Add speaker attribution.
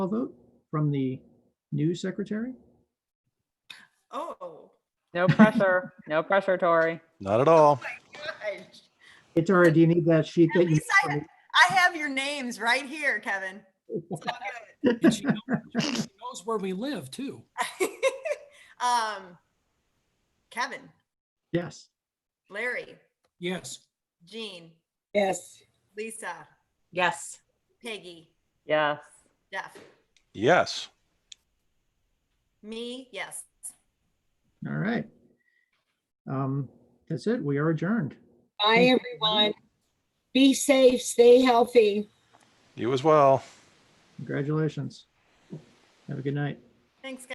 Speaker 1: vote from the new secretary?
Speaker 2: Oh,
Speaker 3: No pressure, no pressure, Tori.
Speaker 4: Not at all.
Speaker 2: gosh.
Speaker 1: Itara, do you need that sheet that you?
Speaker 2: least I have your names right here, Kevin. It's all good.
Speaker 5: And she knows, she knows where we live too.
Speaker 2: Um, Kevin,
Speaker 1: Yes,
Speaker 2: Larry,
Speaker 5: Yes.
Speaker 2: Jean,
Speaker 6: Yes.
Speaker 2: Lisa,
Speaker 6: Yes.
Speaker 2: Peggy,
Speaker 3: Yes.
Speaker 2: Jeff,
Speaker 4: Yes.
Speaker 2: me, yes.
Speaker 1: all right. Um, That's it. We are adjourned.
Speaker 6: Bye, everyone. Be safe, stay healthy.
Speaker 4: You as well.
Speaker 1: Congratulations. Have a good night.
Speaker 2: Thanks, guys.